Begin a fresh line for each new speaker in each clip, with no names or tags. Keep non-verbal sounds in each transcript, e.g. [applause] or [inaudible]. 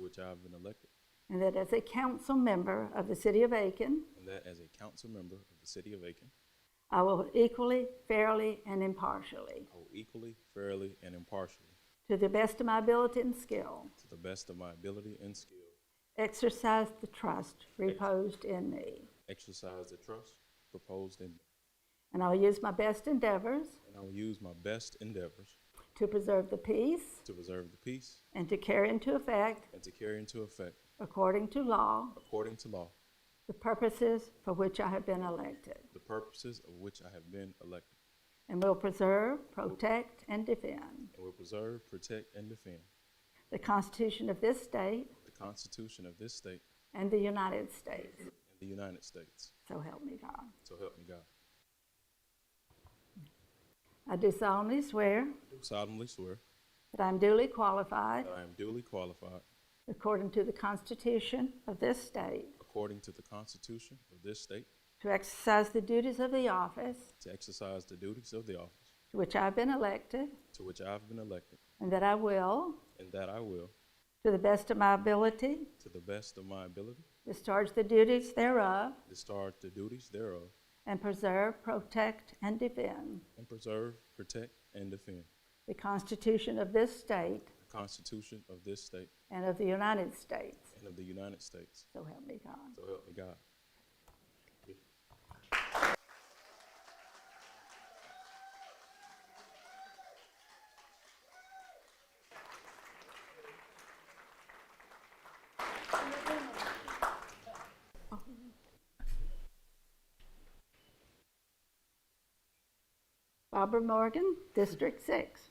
which I've been elected,
and that as a council member of the City of Aiken,
and that as a council member of the City of Aiken,
I will equally, fairly, and impartially,
I will equally, fairly, and impartially,
to the best of my ability and skill,
to the best of my ability and skill,
exercise the trust reposed in me.
exercise the trust proposed in me,
And I'll use my best endeavors
and I will use my best endeavors
to preserve the peace
to preserve the peace
and to carry into effect,
and to carry into effect,
according to law,
according to law,
the purposes for which I have been elected,
the purposes of which I have been elected,
and will preserve, protect, and defend
and will preserve, protect, and defend
the Constitution of this state
the Constitution of this state
and the United States.
and the United States.
So help me God.
So help me God.
I do solemnly swear
I do solemnly swear
that I am duly qualified,
that I am duly qualified,
according to the Constitution of this state,
according to the Constitution of this state,
to exercise the duties of the office
to exercise the duties of the office
to which I have been elected,
to which I have been elected,
and that I will,
and that I will,
to the best of my ability,
to the best of my ability,
discharge the duties thereof,
discharge the duties thereof,
and preserve, protect, and defend
and preserve, protect, and defend
the Constitution of this state
the Constitution of this state
and of the United States.
and of the United States.
So help me God.
So help me God.
Barbara Morgan, District 6.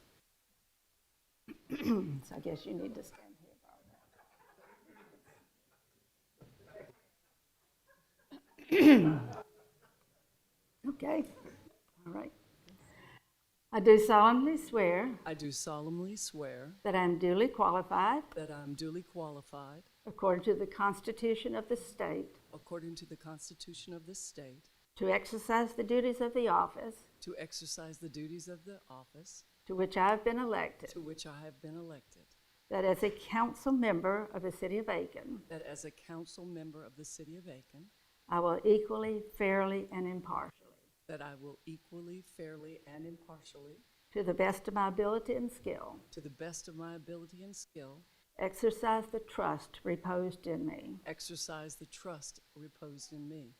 [clears throat] So I guess you need to stand here, Barbara. [clears throat] Okay, all right. I do solemnly swear
I do solemnly swear
that I am duly qualified,
that I am duly qualified,
according to the Constitution of the state,
according to the Constitution of this state,
to exercise the duties of the office
to exercise the duties of the office
to which I have been elected,
to which I have been elected,
that as a council member of the City of Aiken,
that as a council member of the City of Aiken,
I will equally, fairly, and impartially,
that I will equally, fairly, and impartially,
to the best of my ability and skill,
to the best of my ability and skill,
exercise the trust reposed in me,
exercise the trust reposed in me,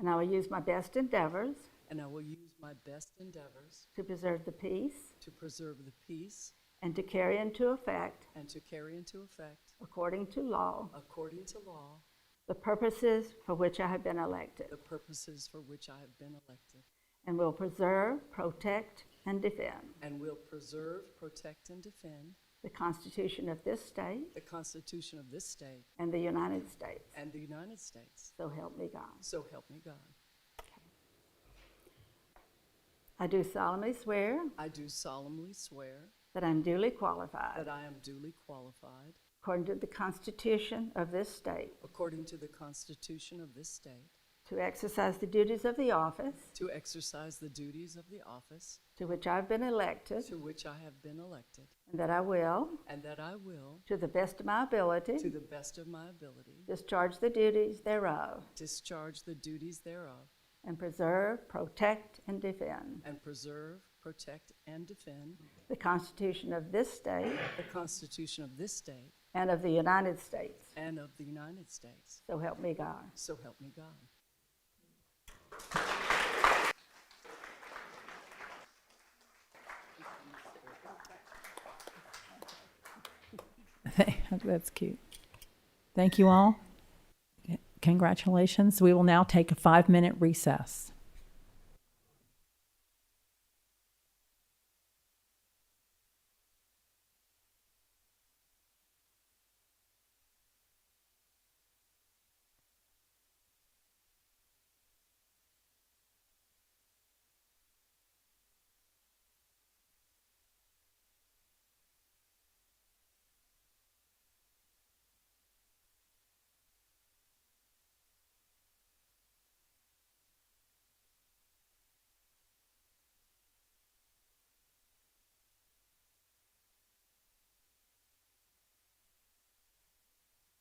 and I will use my best endeavors
and I will use my best endeavors
to preserve the peace
to preserve the peace
and to carry into effect,
and to carry into effect,
according to law,
according to law,
the purposes for which I have been elected,
the purposes for which I have been elected.
and will preserve, protect, and defend
And will preserve, protect, and defend
the Constitution of this state
the Constitution of this state
and the United States.
and the United States.
So help me God.
So help me God.
I do solemnly swear
I do solemnly swear
that I am duly qualified,
that I am duly qualified,
according to the Constitution of this state,
according to the Constitution of this state,
to exercise the duties of the office
to exercise the duties of the office
to which I have been elected,
to which I have been elected,
and that I will,
and that I will,
to the best of my
to
ability,
the best of my ability,
discharge the duties thereof,
discharge the duties thereof,
and preserve, protect, and defend
and preserve, protect, and defend
the Constitution of this state
the Constitution of this state
and of the United States.
and of the United States.
So help me God.
So help me God.
[laughs] That's cute. Thank you all. Congratulations. We will now take a five minute recess.